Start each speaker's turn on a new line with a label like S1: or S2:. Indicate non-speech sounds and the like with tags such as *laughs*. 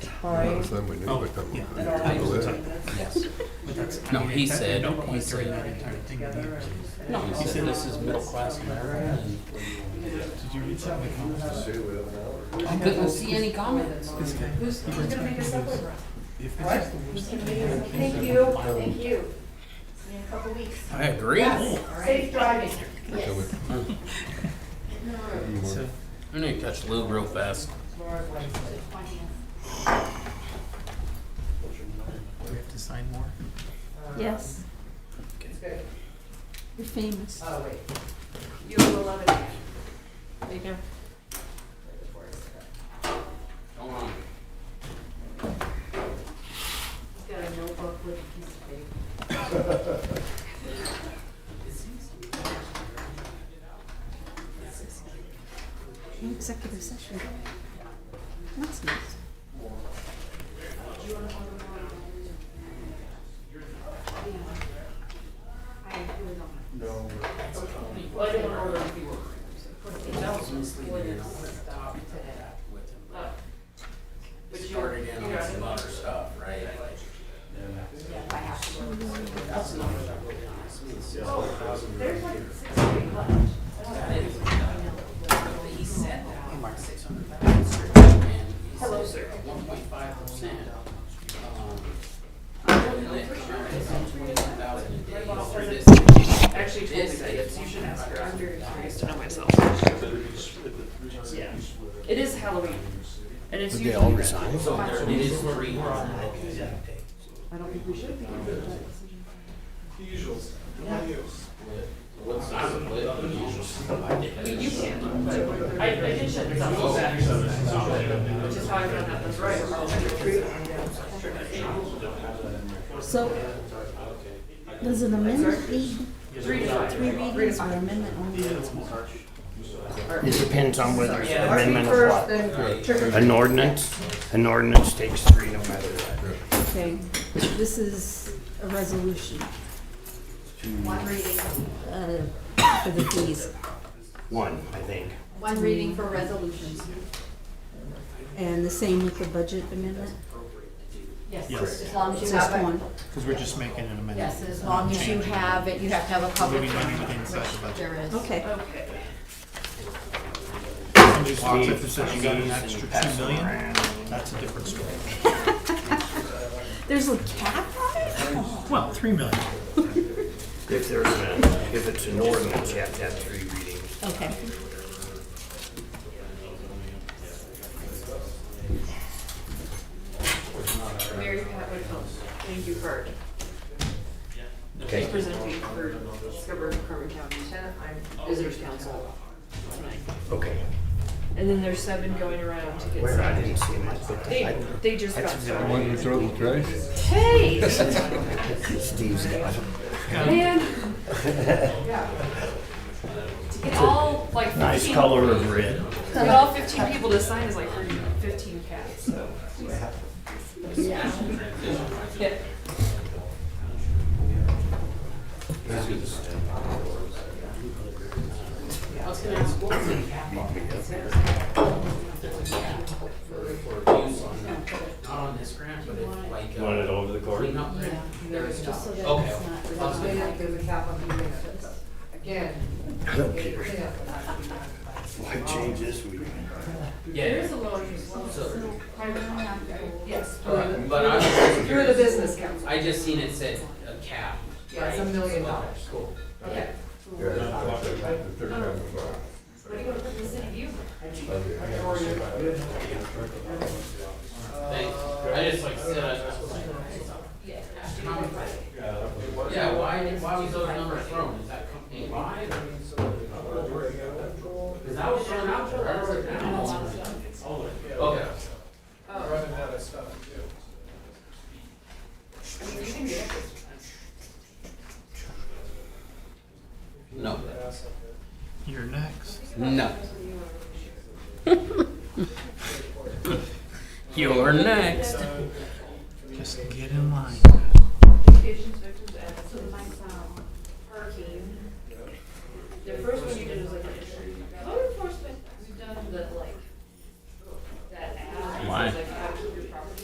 S1: Notice
S2: time.
S1: them, we knew
S3: Oh,
S1: they'd come
S3: yeah.
S1: up.
S2: At
S3: Yeah.
S2: all
S3: I was
S2: times
S3: like-
S2: between this.
S4: Yes.
S3: But that's,
S4: No,
S3: I mean,
S4: he
S3: it's-
S4: said-
S3: At no point
S4: he
S3: during
S4: said-
S3: that entire thing did
S2: Together and-
S3: No,
S4: He said, this is middle class America.
S3: you read something?
S4: I couldn't see any comments.
S3: This guy.
S2: Who's, who's gonna make us up with her?
S3: If
S2: What?
S3: it's-
S2: Who's gonna make us up?
S5: Thank you, thank you. See you in a couple weeks.
S4: I agree.
S5: Yes, safe driving.
S1: Until we-
S5: Yes. No,
S1: Mm,
S3: So,
S4: I need to catch Lou real fast.
S2: Laura Blanchard.
S5: the 20th.
S3: do we have to sign more?
S2: Um,
S6: Yes,
S2: It's good.
S6: you're famous.
S2: Oh, wait. You will love it. Right
S6: There you go.
S2: before it's done.
S4: Hold on.
S2: He's got a notebook with a piece of paper.
S6: No Executive session. That's nice.
S2: Well, I didn't order a few. It doesn't split stop today. But- But you
S4: Started in on some other stuff, right?
S2: There's like six feet left.
S4: He said that. Like six hundred thousand. And he says one point five percent. And then twenty-one thousand a day through this.
S2: Actually, told me
S4: This
S2: that,
S4: is-
S2: you should ask her, I'm very curious to know myself. Yeah, it is Halloween, and it's usually.
S7: resign?
S4: So there, it is three hundred.
S2: I don't think we should be.
S4: What's the split? The usual split.
S2: I mean, you can, but I, I did shut this off, which is how I found out that's right.
S6: So, does an amendment need
S2: Three to five.
S6: three readings or amendment only?
S7: It depends on whether it's an amendment of
S2: First,
S7: what.
S2: then trigger.
S7: An ordinance, an ordinance takes three no matter what.
S6: Okay, this is a resolution,
S5: One reading,
S6: uh, for the fees.
S7: One, I think.
S5: one reading for resolutions.
S6: And the same with the budget amendment?
S5: Yes,
S3: Yes.
S5: as long as you
S6: Just
S5: have
S6: one?
S5: a,
S3: Because we're just making an amendment.
S5: *laughs* yes, as long as you have it, you have to have a public
S3: Maybe not
S5: hearing,
S3: even inside the
S5: which
S3: budget.
S5: there is.
S6: Okay.
S2: Okay.
S3: Somebody walks up and says you got an extra two million, that's a different story.
S6: There's a cap on it?
S3: Well, three million.
S7: If there's a, if it's an ordinance, you have to have three readings.
S6: Okay.
S2: Mary Pat Whitcomb, thank you for
S7: Okay.
S2: presenting for Scarborough Carbon County Ten- Visitors Council tonight.
S7: Okay.
S2: And then there's seven going around to get
S7: Where I
S2: signed.
S7: didn't see them, I put
S2: They,
S7: them.
S2: they just got
S1: The ones
S2: started.
S1: we throw in the trash?
S7: *laughs*
S2: Hey,
S7: I- Steve's got them. *laughs*
S2: man. To get all like fifteen.
S7: Nice color of red.
S2: To get all fifteen people to sign is like for fifteen cats, so. Yeah. Yeah. I was gonna ask, what was the cap on it?
S4: Not on this grant, but it's like. uh,
S7: You want it over the court?
S4: Clean up grant. There is not.
S5: Just so that
S4: Okay.
S5: it's not-
S4: I was gonna-
S2: There's a cap on the units. Again.
S7: I don't care. Why change this week?
S4: Yeah.
S2: a lower
S4: So,
S2: Yes.
S4: but I was just
S2: You're the
S4: curious.
S2: business council.
S4: I just seen it said a cap.
S2: Yeah, it's a
S4: right?
S2: million
S4: So,
S2: dollars.
S4: Cool.
S2: Okay. What do you want to put in the city view?
S4: Thanks. I just like said, I was like. Yeah, why, why was those numbers thrown? Is that company wide? Cause that was thrown out there. I was like, I don't know. Okay. Oh. No.
S3: You're next.
S4: No. *laughs* You're next.
S3: Just get in line.
S2: Patients, victims, advocates. um, Parking. The first one you did was like. Code enforcement, we've done the like. That ad.
S4: Why?
S2: It's like,